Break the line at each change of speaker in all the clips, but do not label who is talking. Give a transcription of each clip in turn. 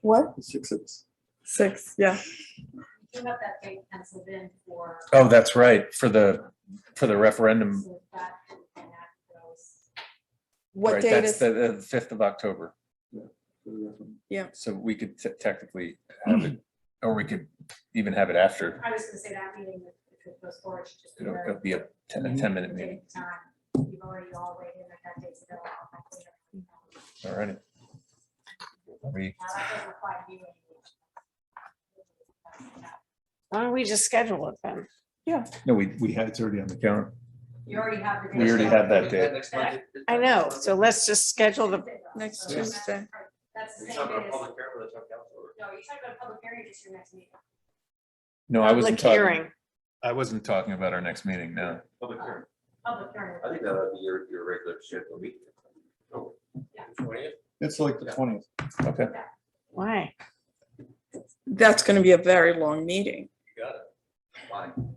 What?
Six of us.
Six, yeah.
You have that date penciled in for.
Oh, that's right, for the, for the referendum.
so that can enact those.
What
right,
date
That's
is,
the, the fifth of October,
for the referendum.
so we could te- technically have it, or we could even have it after.
I was gonna say that meeting, if it goes forward, should just.
It'll
very-
it'll be a ten, a ten minute meeting,
Date, time. You've already all weighed in at that date's available. Now,
all right. We,
that doesn't apply to you anymore.
Why don't we just schedule it then?
no, we, we had, it's already on the calendar.
You already have the. date.
We already had that date.
Next Monday.
I know, so let's just schedule the,
Next
So that's-
Tuesday.
That's the
You're
same
talking
date
about
as,
public hearing or the town council?
no, you're talking about a public hearing, just your next meeting.
No, I wasn't
public
talking,
hearing.
I wasn't talking about our next meeting, no.
Public hearing.
Public hearing.
I think that would be your, your regular scheduled meeting. Oh,
Yeah.
Twentieth?
It's like the twentieth.
Okay,
Why?
That's gonna be a very long meeting.
You got it. Fine.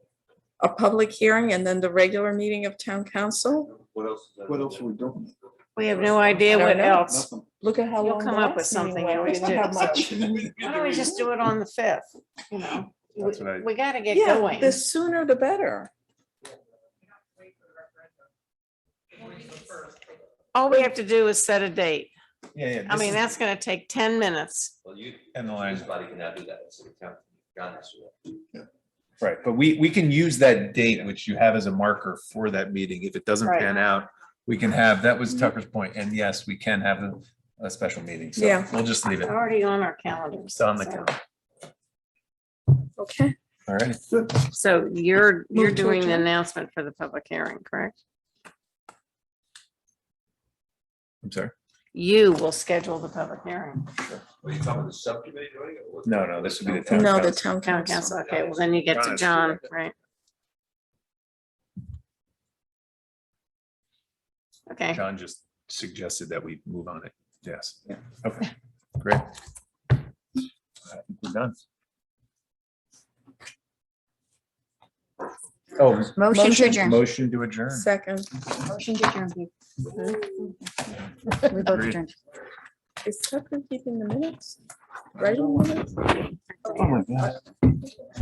A public hearing and then the regular meeting of town council?
What else? is on
What
the
else are we doing?
We have no idea
I don't
what
know.
else.
Nothing.
Look at how
You'll
long.
come
the
up with
last meeting
something,
went.
you
We
always
don't have
do.
much.
Why don't we just do it on the fifth, you know?
That's what I-
We gotta get
Yeah,
going.
the sooner the better.
All we have to do is set a date.
yeah, yeah.
I mean, that's gonna take ten minutes.
Well, you,
And the
this
lines,
body cannot do that, so the town, John has to. do that.
right, but we, we can use that date, which you have as a marker for that meeting, if it doesn't
Right.
pan out. We can have, that was Tucker's point, and yes, we can have a, a special meeting, so
Yeah.
we'll just leave it.
It's Already on our calendars.
It's on the
so-
calendar.
Okay.
All right,
Good.
So you're, you're
Move to
doing the
adjourn.
announcement for the public hearing, correct?
I'm sorry.
You will schedule the public hearing.
Are you talking to the subcommittee doing it? or what?
No, no, this would be the town
No,
council.
the town
Town
council.
council, okay, well then you get to John, right? Okay,
John just suggested that we move on it. Yes.
Yeah.
Okay, great. I think We're done. Oh,
Motion
Motion.
to adjourn.
motion to adjourn.
Second.
Motion to adjourn. We both
Agreed.
adjourned.
Is Tucker keeping the minutes? Writing minutes?
Oh, my God.